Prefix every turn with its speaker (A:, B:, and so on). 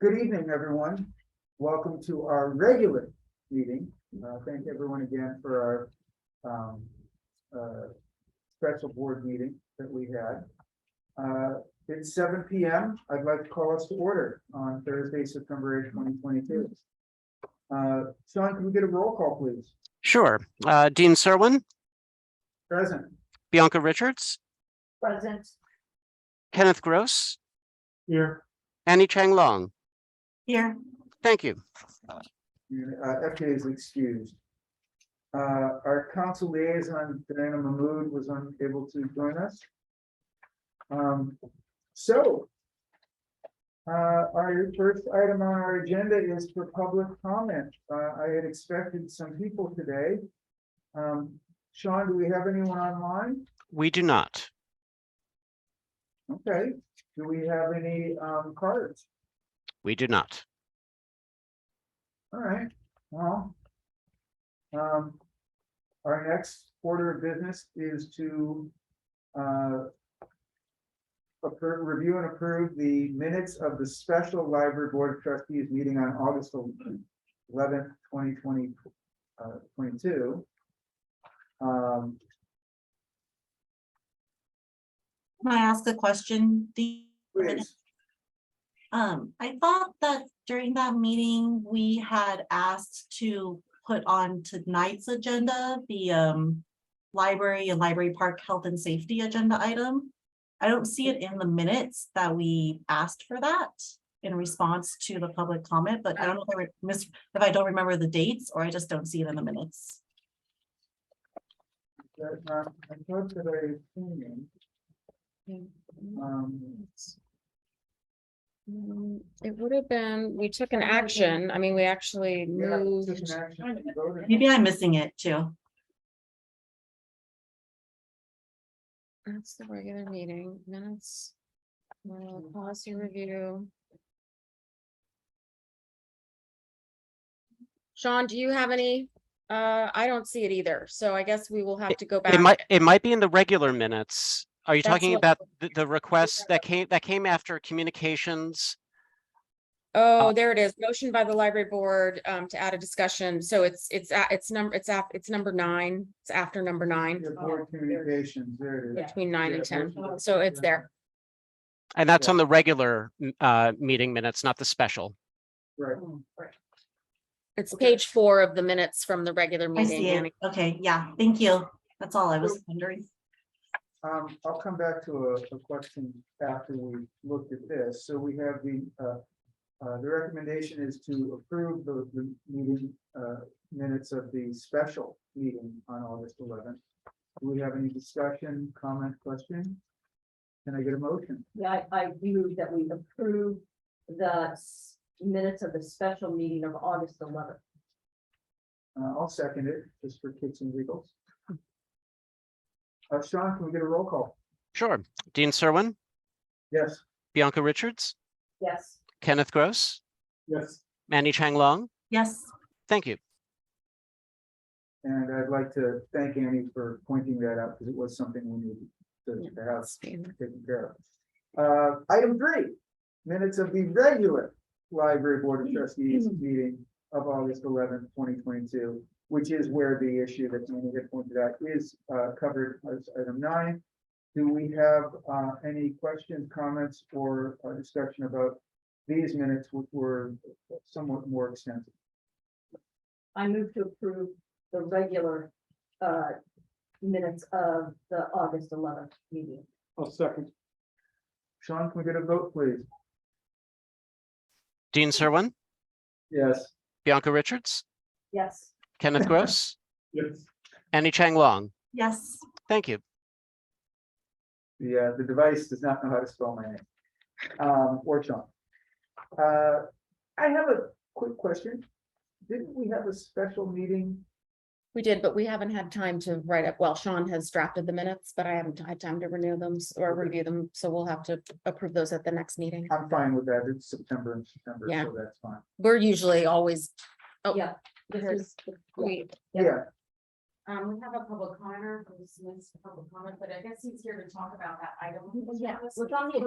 A: Good evening, everyone. Welcome to our regular meeting. Uh, Thank everyone again for our um, uh, special board meeting that we had. Uh, It's seven P M. I'd like to call us to order on Thursday, September eighth, twenty twenty-two. Uh, Sean, can we get a roll call, please?
B: Sure. Uh, Dean Serwin,
A: Present.
B: Bianca Richards,
C: Present.
B: Kenneth Gross,
A: Here.
B: Annie Chang Long.
C: Here.
B: Thank you.
A: And, uh, FJ is excused. Uh, our council liaison, Diana Mahmood, was unable to join us. Um, so. Uh, our first item on our agenda is for public comment. Uh, I had expected some people today. Um, Sean, do we have anyone online?
B: We do not.
A: Okay, do we have any, um, cards?
B: We do not.
A: All right, well. Um. Our next order of business is to. Uh. appro- review and approve the minutes of the special library board of trustees meeting on August eleventh, twenty twenty, uh, twenty-two. Um,
C: Can I ask a question? The,
A: please,
C: um, I thought that during that meeting, we had asked to put on tonight's agenda, the, um, library and library park health and safety agenda item. I don't see it in the minutes that we asked for that in response to the public comment, but I don't know if I re- mis, if I don't remember the dates or I just don't see it in the minutes.
A: that, uh, I thought that I had seen it. Um,
D: Mm, It would have been, we took an
C: Or maybe-
D: action, I mean, we actually
A: yeah, it's just
D: moved,
A: an action to vote on.
C: Maybe I'm missing it too.
D: that's the regular meeting minutes. uh, Policy review. Sean, do you have any? Uh, I don't see it either, so I guess we will have to go back.
B: It might, it might be in the regular minutes. Are you
D: That's
B: talking
D: what-
B: about the, the request that came, that came after communications? uh,
D: Oh, there it is. Motion by the library board um to add a discussion. So it's it's a- it's number, it's af- it's number nine. It's after number nine,
A: Your board communications, there it is.
D: between nine and
A: Yeah,
D: ten.
A: motion-
D: So it's there.
B: And that's
A: Yeah.
B: on the regular, m- uh, meeting minutes, not the special.
A: Right,
D: It's
A: Okay.
D: page four of the minutes from the regular
C: I
D: meeting.
C: see
D: Anna.
C: it. Okay, yeah, thank you. That's all I was wondering.
A: um, I'll come back to a, a question after we looked at this. So we have the, uh, uh, the recommendation is to approve the, the meeting, uh, minutes of the special meeting on August eleventh. Do we have any discussion, comment, question? Can I get a motion?
E: Yeah, I, I move that we approve the s- minutes of the special meeting of August eleventh.
A: Uh, I'll second it, just for kicks and giggles. Uh, Sean, can we get a roll call?
B: Sure. Dean Serwin,
A: Yes.
B: Bianca Richards,
E: Yes,
B: Kenneth Gross,
A: Yes.
B: Annie Chang Long.
C: Yes.
B: Thank you.
A: And I'd like to thank Annie for pointing that out because it was something we needed to- to have taken care of. Uh, item three, minutes of the regular library board of trustees meeting of August eleventh, twenty twenty-two, which is where the issue that Annie had pointed out is, uh, covered as item nine. Do we have, uh, any questions, comments, or uh, discussion about these minutes, which were somewhat more extensive?
E: I move to approve the regular, uh, minutes of the August eleventh meeting.
A: I'll second. Sean, can we get a vote, please?
B: Dean Serwin,
A: Yes.
B: Bianca Richards,
E: Yes,
B: Kenneth Gross,
A: Yes.
B: Annie Chang Long.
C: Yes,
B: Thank you.
A: The, uh, the device does not know how to spell my name. Um, or Sean. Uh, I have a quick question. Didn't we have a special meeting?
D: We did, but we haven't had time to write up. Well, Sean has drafted the minutes, but I haven't had time to renew them s- or review them, so we'll have to approve those at the next meeting.
A: I'm fine with that. It's September and September,
D: Yeah.
A: so that's fine.
D: We're usually always. Oh,
E: yeah. This
D: here's-
E: is,
D: Wait,
E: Yeah.
A: Yeah,
D: um, we have a public commenter, who's missed a public comment, but I guess he's here to talk about that item.
E: yeah, it's on the